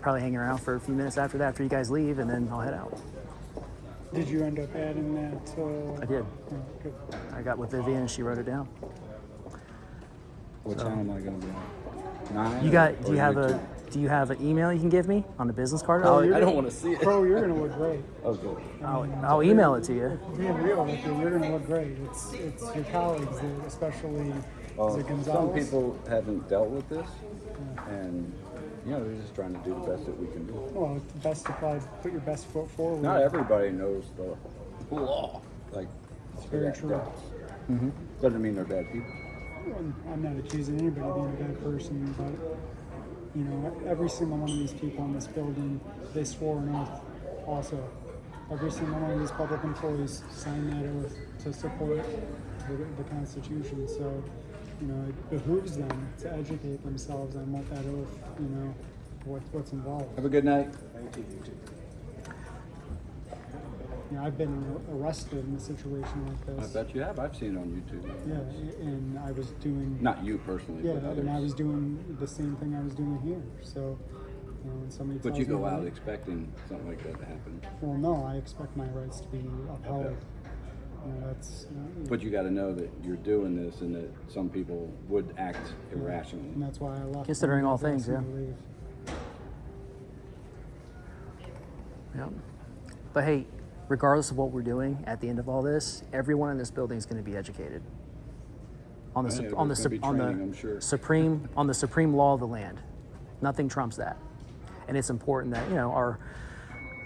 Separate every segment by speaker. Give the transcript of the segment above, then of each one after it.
Speaker 1: probably hang around for a few minutes after that, after you guys leave, and then I'll head out.
Speaker 2: Did you end up adding that? Uh,
Speaker 1: I did.
Speaker 2: oh, good.
Speaker 1: I got with Vivian and she wrote it down.
Speaker 3: What time am I gonna be on? Nine.
Speaker 1: You
Speaker 3: or-
Speaker 1: got? Do
Speaker 3: or
Speaker 1: you have a?
Speaker 3: two?
Speaker 1: Do you have an email you can give me on the business card?
Speaker 3: Oh,
Speaker 1: I'll,
Speaker 3: I don't want to see it.
Speaker 2: Crow, you're gonna look great.
Speaker 3: Oh, good.
Speaker 1: I'll, I'll email it to you.
Speaker 2: Being real with you, you're gonna look great. It's it's your colleagues, that- especially
Speaker 3: Uh,
Speaker 2: is it
Speaker 3: some
Speaker 2: Gonzalez.
Speaker 3: people haven't dealt with this, and you know they're just trying to do the best that we can do.
Speaker 2: well, it's best applied. Put your best foot forward.
Speaker 3: Not everybody knows the law. Like
Speaker 2: It's very true. Mm-hmm.
Speaker 3: Doesn't mean they're bad people.
Speaker 2: And I'm not accusing anybody of being a bad person, but you know, every single one of these people in this building, they swore an oath. Also, every single one of these public employees signed that oath to support the, the Constitution. So, you know, it behooves them to educate themselves on what that oath, you know, what what's involved.
Speaker 3: Have a good night.
Speaker 2: You know, I've been arrested in a situation like
Speaker 3: I
Speaker 2: this.
Speaker 3: bet you have. I've seen it on YouTube.
Speaker 2: Yeah, and I was doing.
Speaker 3: Not you personally,
Speaker 2: Yeah,
Speaker 3: but
Speaker 2: and I was
Speaker 3: others.
Speaker 2: doing the same thing I was doing here. So, you know, when somebody
Speaker 3: But
Speaker 2: tells
Speaker 3: you
Speaker 2: me
Speaker 3: go
Speaker 2: that-
Speaker 3: out expecting something like that to happen.
Speaker 2: Well, no, I expect my rights to be upheld.
Speaker 3: Okay.
Speaker 2: You know, that's. uh,
Speaker 3: But you got to know that you're doing this, and that some people would act
Speaker 2: and
Speaker 3: irrationally.
Speaker 2: that's why I left.
Speaker 1: Considering all
Speaker 2: I was
Speaker 1: things, yeah.
Speaker 2: asking to leave.
Speaker 1: Yep. But hey, regardless of what we're doing, at the end of all this, everyone in this building is going to be educated on the
Speaker 3: Right,
Speaker 1: sup-
Speaker 3: yeah,
Speaker 1: on the
Speaker 3: there's
Speaker 1: sup-
Speaker 3: gonna be
Speaker 1: on the
Speaker 3: training, I'm sure.
Speaker 1: supreme on the supreme law of the land. Nothing trumps that, and it's important that you know our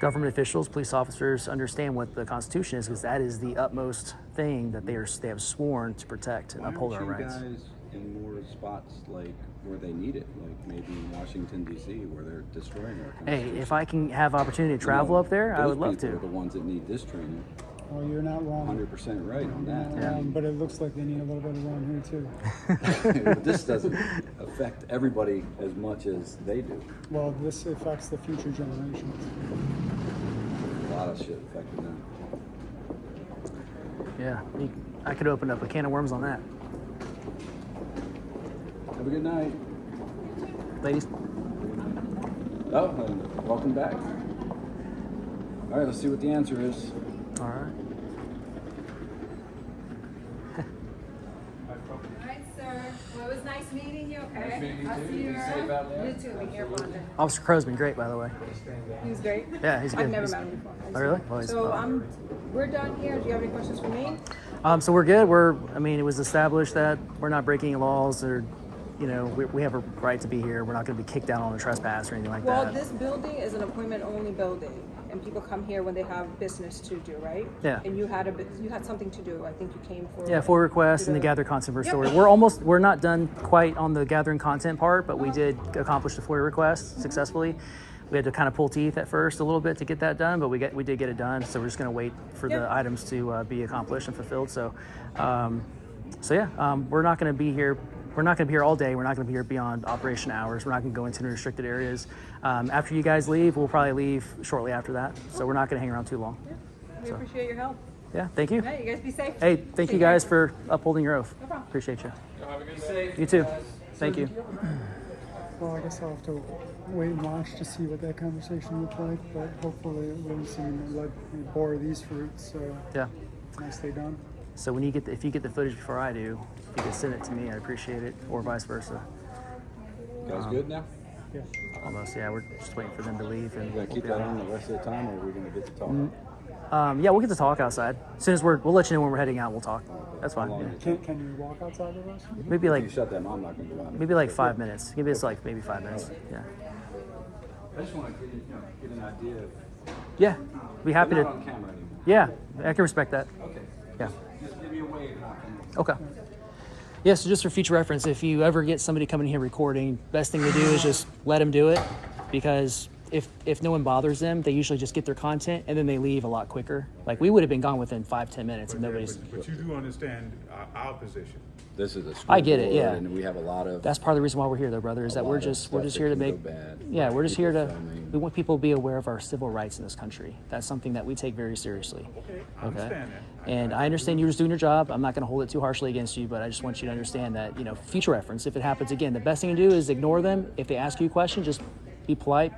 Speaker 1: government officials, police officers, understand what the Constitution is because that is the utmost thing that they are they have sworn to protect and
Speaker 3: Why
Speaker 1: uphold our
Speaker 3: aren't you
Speaker 1: rights.
Speaker 3: guys in more spots like where they need it, like maybe in Washington D.C., where they're destroying our country?
Speaker 1: Hey, if I can have opportunity to travel up there, I would love
Speaker 3: Are the
Speaker 1: to.
Speaker 3: ones that need this training.
Speaker 2: Well, you're not wrong.
Speaker 3: 100% right on
Speaker 2: You're not
Speaker 3: that.
Speaker 2: wrong, but it looks like they need a little bit of wrong here too.
Speaker 3: this doesn't affect everybody as much as they do.
Speaker 2: Well, this affects the future generations.
Speaker 3: A lot of shit affecting them.
Speaker 1: Yeah, you- I could open up a can of worms on that,
Speaker 3: Have a good night.
Speaker 1: ladies.
Speaker 3: Oh, and welcome back. All right, let's see what the answer is.
Speaker 1: All right.
Speaker 4: All right, sir. Well, it was nice meeting you, okay? I'll see you around. You too, be careful out there.
Speaker 1: Officer Crow's been great, by the way.
Speaker 4: He was great.
Speaker 1: Yeah, he's good.
Speaker 4: I've never
Speaker 1: He's-
Speaker 4: met him before.
Speaker 1: Oh, really? Well, he's-
Speaker 4: So, um, we're done here. Do you have any questions for me?
Speaker 1: Um, so we're good. We're, I mean, it was established that we're not breaking laws or, you know, we, we have a right to be here. We're not going to be kicked out on a trespass or anything like
Speaker 4: Well,
Speaker 1: that.
Speaker 4: this building is an appointment-only building, and people come here when they have business to do, right?
Speaker 1: Yeah.
Speaker 4: And you had a, bu- you had something to do. I think you came for.
Speaker 1: yeah, for requests and the
Speaker 4: Yeah.
Speaker 1: gather content for
Speaker 4: Yep.
Speaker 1: story. We're almost, we're not done quite on the gathering content part, but we did accomplish the FOIA request successfully. We had to kind of pull teeth at first a little bit to get that done, but we get we did get it done. So we're just going to wait for
Speaker 4: Yep.
Speaker 1: the items to uh, be accomplished and fulfilled. So, um, so yeah, um, we're not going to be here. We're not going to be here all day. We're not going to be here beyond operation hours. We're not going to go into any restricted areas. Um, after you guys leave, we'll probably leave shortly after that. So we're not going to hang around too long.
Speaker 4: We appreciate your help.
Speaker 1: Yeah, thank you.
Speaker 4: All right, you guys be safe.
Speaker 1: Hey, thank you
Speaker 4: Take care.
Speaker 1: guys for upholding your oath.
Speaker 4: No problem.
Speaker 1: Appreciate you. You too. Thank you.
Speaker 2: Well, I guess I'll have to wait and watch to see what that conversation looked like, but hopefully it wouldn't seem to like bore these fruits. So
Speaker 1: Yeah.
Speaker 2: nicely done.
Speaker 1: So when you get the, if you get the footage before I do, if you can send it to me, I appreciate it, or vice versa.
Speaker 3: You
Speaker 1: Um,
Speaker 3: guys good now?
Speaker 2: Yeah.
Speaker 1: Almost, yeah. We're just waiting for them to leave, and
Speaker 3: You gonna
Speaker 1: we'll
Speaker 3: keep
Speaker 1: be
Speaker 3: that
Speaker 1: on.
Speaker 3: on the rest of the time, or are we gonna get to talk?
Speaker 1: Um, yeah, we'll get to talk outside. As soon as we're, we'll let you know when we're heading out. We'll talk. That's fine.
Speaker 3: How long
Speaker 1: yeah.
Speaker 3: is it?
Speaker 2: Can, can you walk outside of us?
Speaker 1: Maybe
Speaker 3: If
Speaker 1: like
Speaker 3: you shut them, I'm not gonna go out.
Speaker 1: maybe like five minutes. Maybe it's like maybe five minutes. Yeah.
Speaker 3: I just wanna get, you know, get an idea. of-
Speaker 1: Yeah. Be happy
Speaker 3: They're not
Speaker 1: to.
Speaker 3: on camera anymore.
Speaker 1: Yeah, I can respect that.
Speaker 3: Okay.
Speaker 1: Yeah.
Speaker 3: Just give me a wave. and I can-
Speaker 1: Okay. Yeah, so just for future reference, if you ever get somebody coming here recording, best thing to do is just let them do it because if if no one bothers them, they usually just get their content and then they leave a lot quicker. Like we would have been gone within five ten minutes and nobody's.
Speaker 5: But, but you do understand our, our position.
Speaker 3: This is a.
Speaker 1: I get it,
Speaker 3: school board,
Speaker 1: yeah.
Speaker 3: And we have a lot of.
Speaker 1: That's part of the reason why we're here, though, brother. Is that
Speaker 3: lot
Speaker 1: we're
Speaker 3: of
Speaker 1: just we're
Speaker 3: stuff
Speaker 1: just
Speaker 3: that
Speaker 1: here to
Speaker 3: can go
Speaker 1: make.
Speaker 3: bad,
Speaker 1: Yeah,
Speaker 3: like
Speaker 1: we're just
Speaker 3: people
Speaker 1: here to.
Speaker 3: filming.
Speaker 1: We want people to be aware of our civil rights in this country. That's something that we take very seriously.
Speaker 5: Okay, I understand that. I-
Speaker 1: And I understand you're just doing your job. I'm not going to hold it too harshly against you, but I just want you to understand that, you know, future reference, if it happens again, the best thing to do is ignore them. If they ask you a question, just be polite,